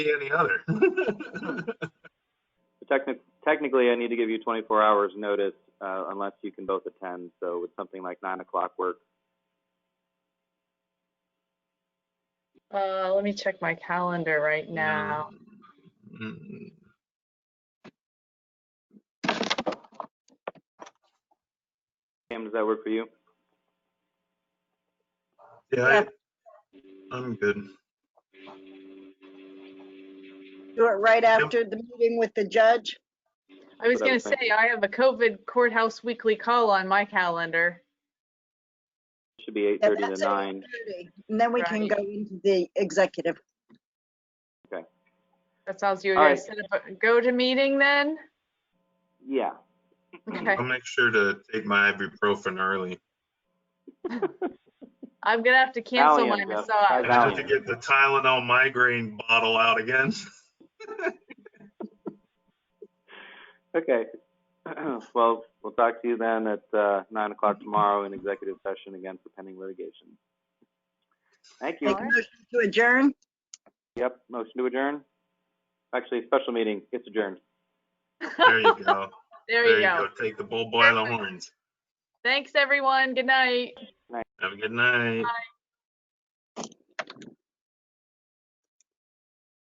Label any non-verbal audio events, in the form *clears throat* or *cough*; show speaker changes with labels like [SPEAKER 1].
[SPEAKER 1] any
[SPEAKER 2] *laughs*
[SPEAKER 1] other.
[SPEAKER 3] Technic- Technically, I need to give you 24 hours notice uh, unless you can both attend, so would something like 9 o'clock work?
[SPEAKER 2] Uh, let me check my calendar right now.
[SPEAKER 1] Mm,
[SPEAKER 3] Pam, does that work for you?
[SPEAKER 1] Yeah, I, I'm good.
[SPEAKER 4] Do it right after the meeting with the judge.
[SPEAKER 2] I was
[SPEAKER 3] what I
[SPEAKER 2] gonna
[SPEAKER 3] was
[SPEAKER 2] say, I have a COVID courthouse weekly call on my calendar.
[SPEAKER 3] Should be
[SPEAKER 4] Yeah,
[SPEAKER 3] 8:30
[SPEAKER 4] that's
[SPEAKER 3] to
[SPEAKER 4] at
[SPEAKER 3] 9.
[SPEAKER 4] 8:30, And then we can
[SPEAKER 2] Right.
[SPEAKER 4] go into the executive.
[SPEAKER 2] That sounds you
[SPEAKER 3] All
[SPEAKER 2] guys set up a go-to meeting then?
[SPEAKER 3] Yeah.
[SPEAKER 2] Okay,
[SPEAKER 1] I'll make sure to take my ibuprofen early.
[SPEAKER 2] I'm gonna have to cancel my
[SPEAKER 3] Valiant, Jeff.
[SPEAKER 2] massage.
[SPEAKER 1] I have to get the Tylenol migraine bottle out again. *laughs*
[SPEAKER 3] Okay. *clears throat* Well, we'll talk to you then at uh, 9 o'clock tomorrow in executive session again for pending litigation. Thank you.
[SPEAKER 4] Make a motion to adjourn.
[SPEAKER 3] Yep, motion to adjourn. Actually, special meeting, it's adjourned.
[SPEAKER 2] *laughs*
[SPEAKER 1] There you go.
[SPEAKER 2] There you go.
[SPEAKER 1] Take the bull by the horns.
[SPEAKER 2] Thanks, everyone. Good night.
[SPEAKER 1] Have a good night.
[SPEAKER 2] Bye.